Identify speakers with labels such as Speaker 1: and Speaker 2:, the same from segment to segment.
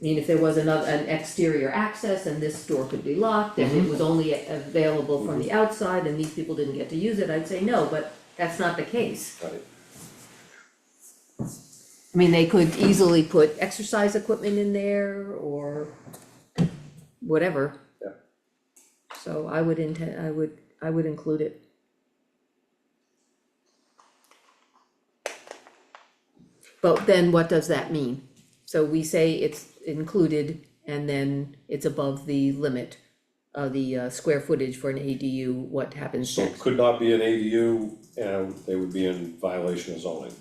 Speaker 1: I mean, if there was another, an exterior access and this door could be locked and it was only a- available from the outside and these people didn't get to use it, I'd say no, but that's not the case.
Speaker 2: got it.
Speaker 1: I mean, they could easily put exercise equipment in there or whatever.
Speaker 2: Yeah.
Speaker 1: So I would intend, I would, I would include it. But then what does that mean? So we say it's included and then it's above the limit of the uh, square footage for an ADU, what happens
Speaker 2: So it
Speaker 1: next?
Speaker 2: could not be an ADU and they would be in violation of zoning.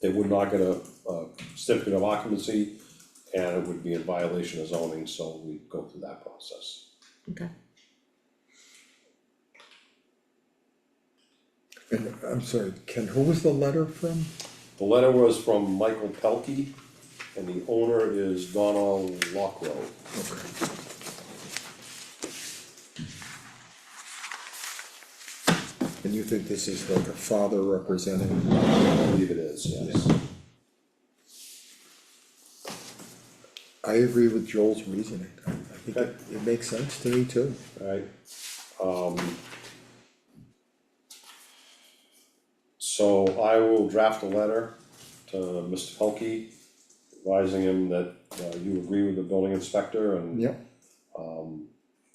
Speaker 2: They would not get a, a certificate of occupancy and it would be in violation of zoning, so we go through that process.
Speaker 1: Okay,
Speaker 3: And I'm sorry, Ken, who was the letter from?
Speaker 2: The letter was from Michael Pelkey and the owner is Donald Lockrow.
Speaker 3: And you think this is like a father representing?
Speaker 2: I believe it is, yes.
Speaker 3: I agree with Joel's reasoning. I I think it,
Speaker 2: Okay.
Speaker 3: it makes sense to me too.
Speaker 2: Alright, um. So I will draft a letter to Mr. Pelkey, advising him that uh, you agree with the building inspector and
Speaker 3: Yep.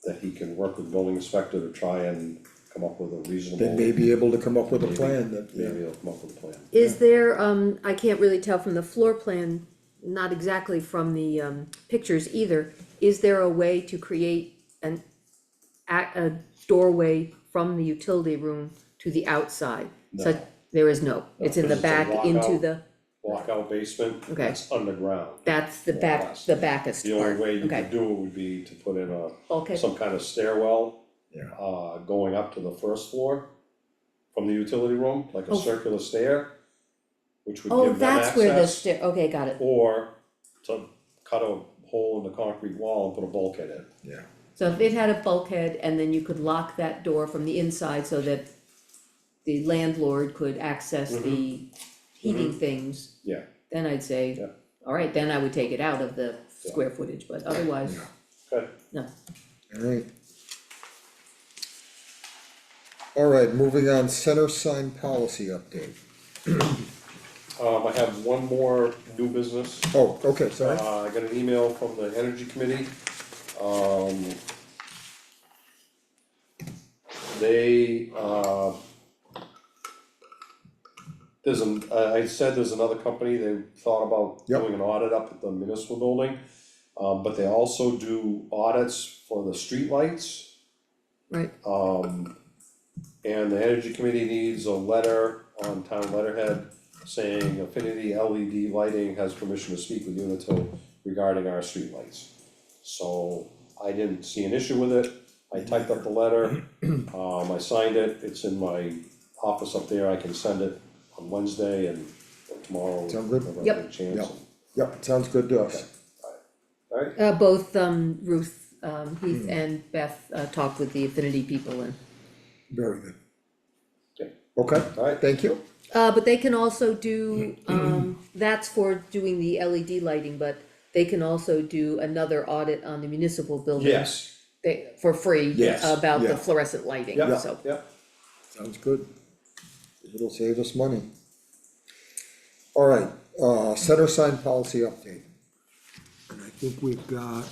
Speaker 2: that he can work with building inspector to try and come up with a reasonable.
Speaker 3: They may be able to come up with a
Speaker 2: Maybe-
Speaker 3: plan that, yeah,
Speaker 2: Maybe he'll come up with a plan.
Speaker 1: Is there, um, I can't really tell from the floor plan, not exactly from the, um, pictures either, is there a way to create an, a, a doorway from the utility room to the outside? So,
Speaker 2: No.
Speaker 1: there is no, it's in the
Speaker 2: because it's a
Speaker 1: back into
Speaker 2: walkout.
Speaker 1: the,
Speaker 2: Walkout basement,
Speaker 1: Okay.
Speaker 2: that's underground.
Speaker 1: that's the back,
Speaker 2: Walkout.
Speaker 1: the backest
Speaker 2: The
Speaker 1: part,
Speaker 2: only way you could
Speaker 1: okay,
Speaker 2: do it would be to put in a,
Speaker 1: okay,
Speaker 2: some kind of stairwell
Speaker 3: yeah,
Speaker 2: uh, going up to the first floor from the utility room, like a
Speaker 1: Oh.
Speaker 2: circular stair, which would
Speaker 1: oh,
Speaker 2: give them
Speaker 1: that's where the
Speaker 2: access.
Speaker 1: stair, okay, got it,
Speaker 2: Or to cut a hole in the concrete wall and put a bulkhead in.
Speaker 3: yeah.
Speaker 1: so if it had a bulkhead and then you could lock that door from the inside so that the landlord could access the heating things
Speaker 2: Mm-hmm. Yeah,
Speaker 1: then I'd say,
Speaker 2: Yeah.
Speaker 1: alright, then I would take it out of the square footage, but otherwise,
Speaker 3: Yeah.
Speaker 2: good.
Speaker 1: no.
Speaker 3: Alright. Alright, moving on, center sign policy update.
Speaker 2: Um, I have one more new business.
Speaker 3: Oh, okay, sorry.
Speaker 2: Uh, I got an email from the energy committee, um. They, uh. There's an, I, I said there's another company, they thought about
Speaker 3: Yep.
Speaker 2: doing an audit up at the municipal building. Um, but they also do audits for the streetlights.
Speaker 1: Right.
Speaker 2: Um, and the energy committee needs a letter on town letterhead saying Affinity LED Lighting has permission to speak with Unitil regarding our streetlights. So I didn't see an issue with it, I typed up the letter, um, I signed it, it's in my office up there, I can send it on Wednesday and or tomorrow.
Speaker 3: Sound good?
Speaker 2: whenever I
Speaker 1: Yep.
Speaker 2: get a chance.
Speaker 3: Yep. Yep, sounds good to us.
Speaker 2: Alright,
Speaker 1: Uh, both, um, Ruth, um, Heath
Speaker 2: Hmm.
Speaker 1: and Beth, uh, talked with the affinity people and,
Speaker 3: Very good.
Speaker 2: Okay.
Speaker 3: Okay,
Speaker 2: alright,
Speaker 3: thank you.
Speaker 1: uh, but they can also do,
Speaker 2: Hmm.
Speaker 1: um, that's for doing the LED lighting, but they can also do another audit on the municipal building.
Speaker 2: yes,
Speaker 1: They, for free.
Speaker 2: Yes,
Speaker 1: About
Speaker 3: yeah.
Speaker 1: the fluorescent lighting,
Speaker 2: Yep.
Speaker 1: so,
Speaker 2: yep,
Speaker 3: Sounds good. It'll save us money. Alright, uh, center sign policy update. And I think we've got.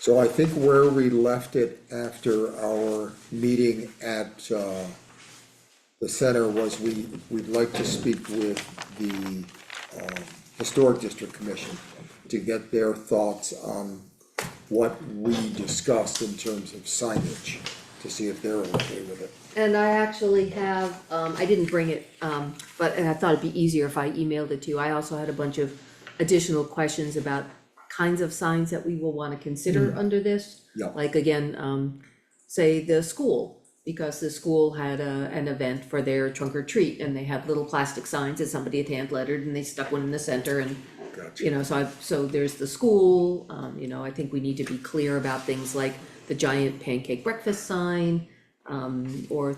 Speaker 3: So I think where we left it after our meeting at, uh, the center was we, we'd like to speak with the, um, Historic District Commission to get their thoughts on what we discussed in terms of signage, to see if they're okay with it.
Speaker 1: And I actually have, um, I didn't bring it, um, but, and I thought it'd be easier if I emailed it to you, I also had a bunch of additional questions about kinds of signs that we will wanna consider under this.
Speaker 3: Mm-hmm. Yeah.
Speaker 1: Like again, um, say the school, because the school had a, an event for their trunk or treat, and they had little plastic signs that somebody had hand lettered, and they stuck one in the center, and you
Speaker 3: Gotcha.
Speaker 1: know, so I, so there's the school, um, you know, I think we need to be clear about things like the giant pancake breakfast sign, um, or